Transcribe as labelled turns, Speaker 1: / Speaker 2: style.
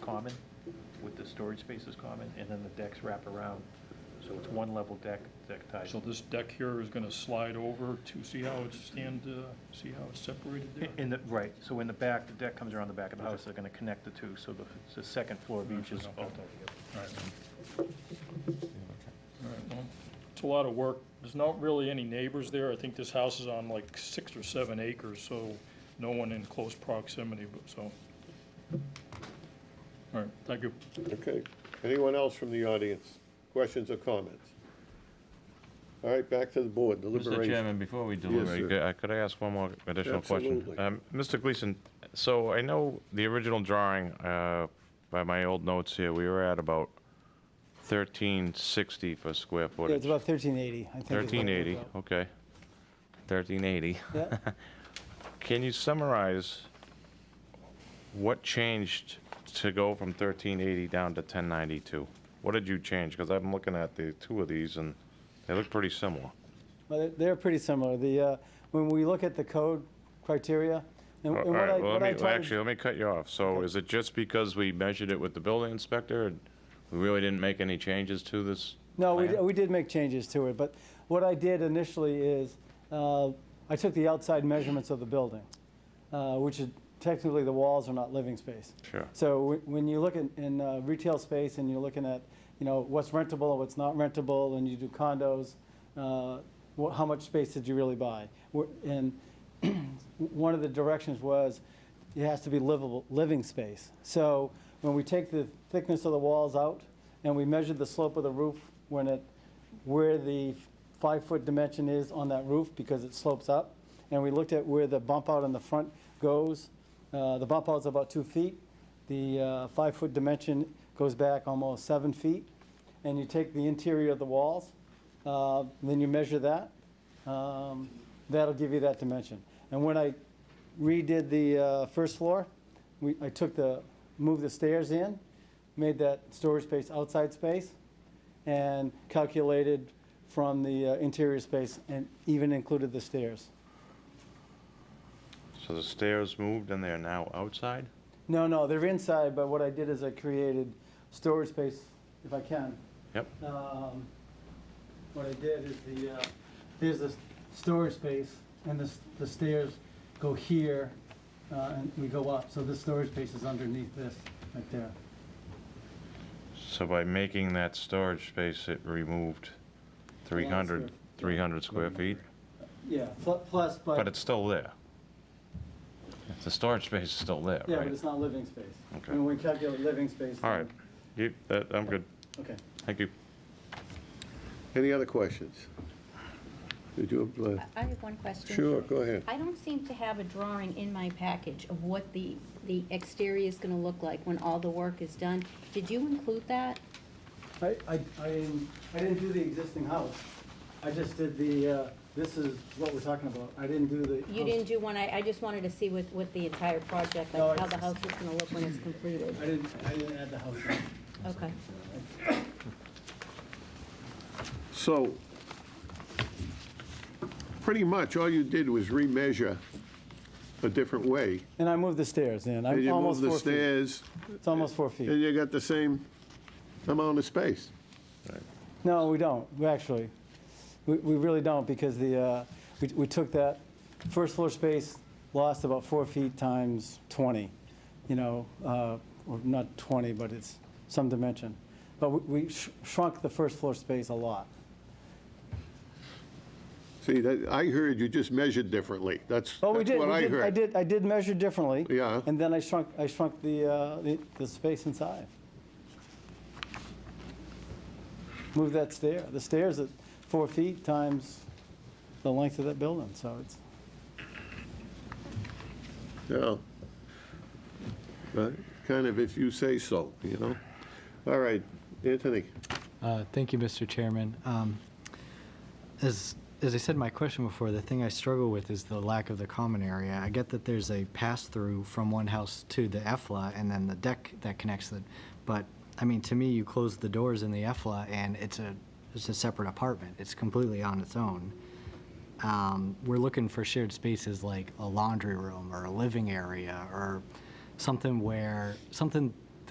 Speaker 1: common, with the storage spaces common, and then the decks wrap around. So it's one level deck, deck type.
Speaker 2: So this deck here is gonna slide over to see how it's stand, uh, see how it's separated there?
Speaker 1: In the, right, so in the back, the deck comes around the back of the house, they're gonna connect the two, so the, the second floor of each is
Speaker 2: Okay.
Speaker 1: all together.
Speaker 2: All right. All right, well, it's a lot of work. There's not really any neighbors there. I think this house is on like six or seven acres, so no one in close proximity, but so. All right, thank you.
Speaker 3: Okay. Anyone else from the audience? Questions or comments? All right, back to the board,
Speaker 4: Mr.
Speaker 3: deliberation.
Speaker 4: Chairman, before we deliberate,
Speaker 3: sir.
Speaker 4: uh, could I ask one more additional question?
Speaker 3: Absolutely.
Speaker 4: Um, Mr. Gleason, so I know the original drawing, uh, by my old notes here, we were at about 1360 for square
Speaker 5: Yeah, it's
Speaker 4: footage.
Speaker 5: about 1380, I think. is what it was
Speaker 4: 1380,
Speaker 5: about.
Speaker 4: okay. 1380.
Speaker 5: Yeah.
Speaker 4: Can you summarize what changed to go from 1380 down to 1092? What did you change? Because I'm looking at the two of these, and they look pretty similar.
Speaker 5: Well, they're- they're pretty similar. The, uh, when we look at the code criteria, and
Speaker 4: All
Speaker 5: and what
Speaker 4: right,
Speaker 5: I,
Speaker 4: well, let
Speaker 5: what I
Speaker 4: me-
Speaker 5: try to-
Speaker 4: Actually, let me cut you off. So
Speaker 5: Okay.
Speaker 4: is it just because we measured it with the building inspector? and We really didn't make any changes to this?
Speaker 5: No, we,
Speaker 4: plan?
Speaker 5: we did make changes to it, but what I did initially is, uh, I took the outside measurements of the building, uh, which is technically the walls are not living space.
Speaker 4: Sure.
Speaker 5: So wh- when you look in, in uh, retail space and you're looking at, you know, what's rentable, what's not rentable, and you do condos, uh, wh- how much space did you really buy? Wh- And one of the directions was it has to be livable, living space. So when we take the thickness of the walls out and we measure the slope of the roof when it, where the five-foot dimension is on that roof because it slopes up, and we looked at where the bump out in the front goes, uh, the bump out's about two feet, the uh, five-foot dimension goes back almost seven feet, and you take the interior of the walls, uh, then you measure that, um, that'll give you that dimension. And when I redid the uh, first floor, we, I took the, moved the stairs in, made that storage space outside space, and calculated from the uh, interior space and even included the stairs.
Speaker 4: So the stairs moved and they're now outside?
Speaker 5: No, no, they're inside, but what I did is I created storage space, if I can.
Speaker 4: Yep.
Speaker 5: Um, What I did is the, uh, here's the s- storage space, and the s- the stairs go here, uh, and we go up, so this storage space is underneath this, right there.
Speaker 4: So by making that storage space, it removed 300,
Speaker 5: square-
Speaker 4: 300 square feet?
Speaker 5: Yeah, pl- plus, but.
Speaker 4: But it's still there. The storage space is still there,
Speaker 5: Yeah, but
Speaker 4: right?
Speaker 5: it's not living space.
Speaker 4: Okay.
Speaker 5: When we calculate living space.
Speaker 4: All right. You, that, I'm good.
Speaker 5: Okay.
Speaker 4: Thank you.
Speaker 3: Any other questions? Did you, uh,
Speaker 6: I have one question.
Speaker 3: sure, go ahead.
Speaker 6: I don't seem to have a drawing in my package of what the, the exterior is gonna look like when all the work is done. Did you include that?
Speaker 5: I, I, I didn't- I didn't do the existing house. I just did the, uh, this is what we're talking about. I didn't do the.
Speaker 6: You
Speaker 5: house.
Speaker 6: didn't do one, I, I just wanted to see what, what the entire project,
Speaker 5: No,
Speaker 6: like how
Speaker 5: it's-
Speaker 6: the house is gonna look when it's completed.
Speaker 5: I didn't, I didn't add the house.
Speaker 6: Okay.
Speaker 3: So, pretty much all you did was remeasure a different way.
Speaker 5: And I moved the stairs in.
Speaker 3: And
Speaker 5: I'm
Speaker 3: you
Speaker 5: almost
Speaker 3: moved the
Speaker 5: four feet.
Speaker 3: stairs,
Speaker 5: It's almost four
Speaker 3: and
Speaker 5: feet.
Speaker 3: you got the same amount of space.
Speaker 5: No, we don't, we actually. We, we really don't because the, uh, we, we took that first floor space, lost about four feet times 20, you know, uh, or not 20, but it's some dimension. But we we sh- shrunk the first floor space a lot.
Speaker 3: See, that, I heard you just measured differently. That's, that's
Speaker 5: Oh, we did.
Speaker 3: what
Speaker 5: we
Speaker 3: I
Speaker 5: did-
Speaker 3: heard.
Speaker 5: I did, I did measure differently.
Speaker 3: Yeah.
Speaker 5: And then I shrunk, I shrunk the, uh, the, the space inside. Moved that stair, the stairs at four feet times the length of that building, so it's,
Speaker 3: Yeah. But kind of if you say so, you know? All right, Anthony.
Speaker 7: Uh, Thank you, Mr. Chairman. Um, As, as I said in my question before, the thing I struggle with is the lack of the common area. I get that there's a pass-through from one house to the EFLA and then the deck that connects it, but, I mean, to me, you close the doors in the EFLA and it's a, it's a separate apartment. It's completely on its own. Um, We're looking for shared spaces like a laundry room or a living area or something where, something